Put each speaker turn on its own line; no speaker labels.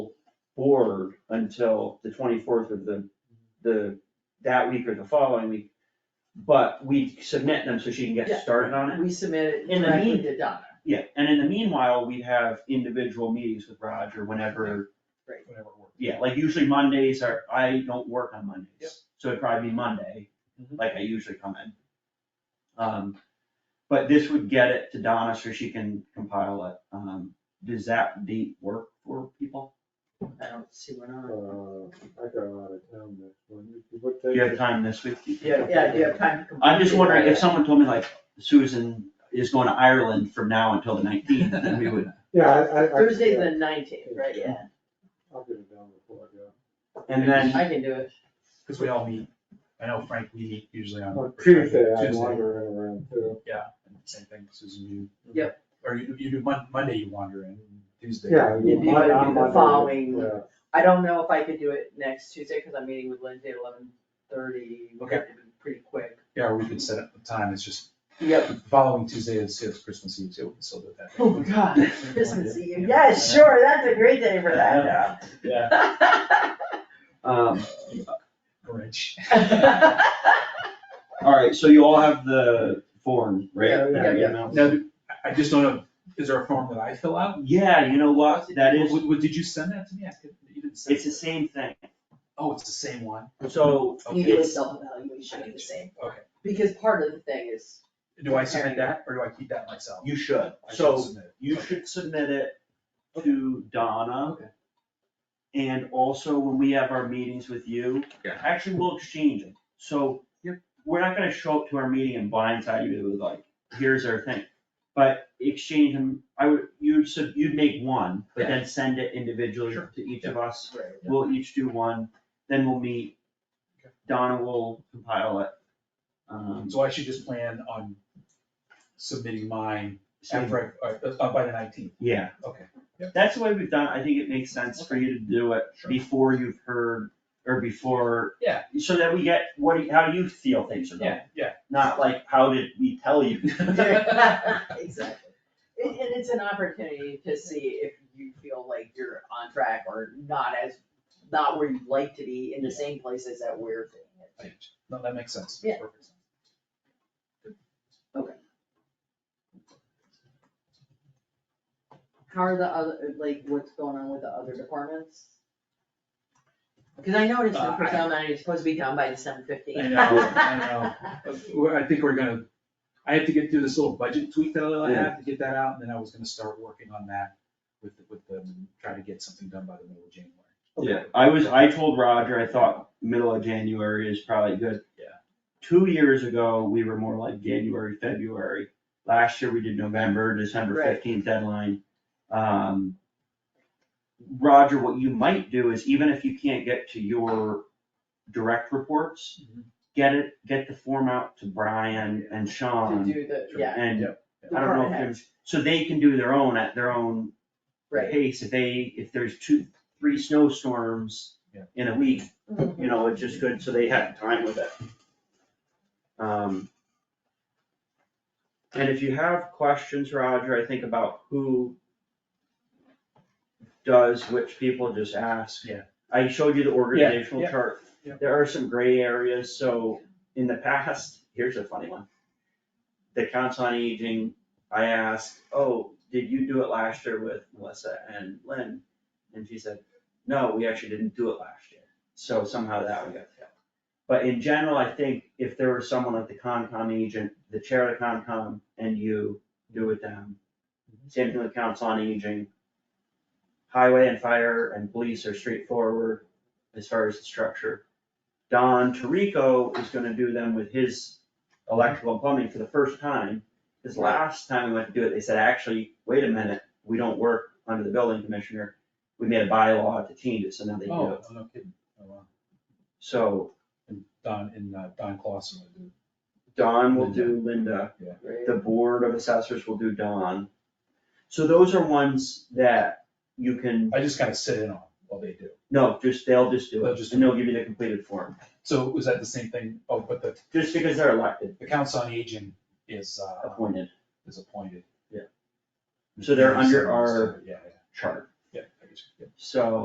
board until the twenty-fourth of the, the, that week or the following week. But we submit them so she can
Yeah.
get started on it.
We submit it
In the
directly
mean-
to Donna.
Yeah, and in the meanwhile, we have individual meetings with Roger whenever,
whatever works.
yeah, like usually Mondays are, I don't work on Mondays.
Yep.
So it'd probably be Monday,
Mm-hmm.
Mhm.
like I usually come in. Um, but this would get it to Donna so she can compile it. Um, does that date work for people?
I don't see what
Uh,
on.
I got out of town next one. What
Do
day?
you have time this week?
Yeah.
Yeah, do you have time to complete?
I'm just
it?
wondering if someone told me like Susan is going to Ireland from now until the nineteenth, then we would,
Yeah, I, I. I-
Thursday the nineteenth, right, yeah,
Yeah. I'll get it down before I go.
and then.
I can do it.
Cause we all meet, I know Frank, we meet usually on.
On Tuesday, I'm
Tuesday,
wandering around too.
same thing, Susan, you.
Yep.
Or you, you do Mon- Monday, you wander in, Tuesday.
Yeah.
It'd be
my-
the
I'm on-
following-
yeah.
I don't know if I could do it next Tuesday, cause I'm meeting with Lindsay at eleven thirty, we
Okay.
have to be pretty quick.
Yeah, or we could set up the time, it's just,
Yep.
following Tuesday is, is Christmas Eve, so we can still do it that. day.
Oh, God, Christmas Eve, yes, sure, that's a great day for that,
Yeah,
Um,
Grinch.
all right, so you all have the form, right?
Yeah,
yeah,
That we
yeah.
emailed?
Now, do- I, I just don't know, is there a form that I fill out?
Yeah, you know what, that is,
Would- would- did you send that to me? I could, you didn't send.
it's the
it.
same thing,
Oh, it's the same one?
so,
You
Okay.
do a self-evaluation at the same,
Okay,
because part of the thing is,
do I submit that, or do I keep that myself?
you should,
I should
so
submit it.
you
Okay.
should submit it to Donna.
Okay.
And also when we have our meetings with you,
Yeah.
actually, we'll exchange it, so.
Yep.
We're not gonna show up to our meeting and blindside you with like, here's our thing, but exchange them, I would, you'd sub, you'd make one, but then send it individually
Sure.
to each of us.
Right.
We'll each do one, then we'll meet.
Okay.
Donna will compile it. Um,
So I should just plan on submitting mine
so-
after, I- uh, uh, by the nineteenth,
yeah,
okay.
that's the way we've done, it. I think it makes sense for you to do it
Sure.
before you've heard, or before.
Yeah.
So that we get, what, do you- how you feel things are going,
Yeah, yeah.
not like, how did we tell you?
Exactly. And, and it's an opportunity to see if you feel like you're on track or not as, not where you'd like to be in the same places that we're doing it.
No, that makes sense.
Yeah.
Perfect sense.
How are the other, like, what's going on with the other departments? Cause I noticed the
Uh, I-
personnel manager is supposed to be done by December fifteenth.
I know, I Uh, well, I think we're gonna, I have to get through this little budget tweak that I have to get that out, and then I was gonna start working on that with, the- with them, and try to get something done by the middle of January.
Yeah, I was, I told Roger, I thought middle of January is probably good.
Yeah.
Two years ago, we were more like January, February. Last year, we did November, December
Right.
fifteenth deadline. Um, Roger, what you might do is even if you can't get to your direct reports,
Mhm.
get it, get the form out to Brian and
Mm-hmm. To
Sean
do the,
Sure.
yeah,
and
Yep.
I don't know if
Department
there's, so they can do their own at their own
right.
pace, if they, if there's two, three snowstorms
Yeah.
in a week, you know, it's just good, so they have time with it. Um. And if you have questions, Roger, I think about who does which people, just ask.
Yeah.
I showed you the organizational
yeah,
chart.
yeah.
There are some gray areas, so in the past, here's a funny one. The Council on Aging, I asked, oh, did you do it last year with Melissa and Lynn? And she said, no, we actually didn't do it last year, so somehow that would get filled. But in general, I think if there was someone like the Concom agent, the chair of the Concom and you do with them. Same thing with Council on Aging. Highway and fire and police are straightforward as far as the structure. Don Tarico is gonna do them with his electrical and plumbing for the first time. Cause last time we went to do it, they said, actually, wait a minute, we don't work under the building commissioner. We made a bylaw to change it, so now they do it.
Oh, no kidding, oh, wow.
So
And Don, and uh, Don Clausen would do.
Don will do Linda.
Right.
the board of assessors will do Don. So those are ones that you can,
I just kind of sit in on while they do.
no, just, they'll just do
They'll
it,
just-
and they'll give you the completed form,
So was that the same thing, oh, but the,
just because they're elected,
the council on aging is, uh,
appointed
is appointed.
So they're under our-
Yeah, yeah,
chart,
yeah, I guess, yeah.
so.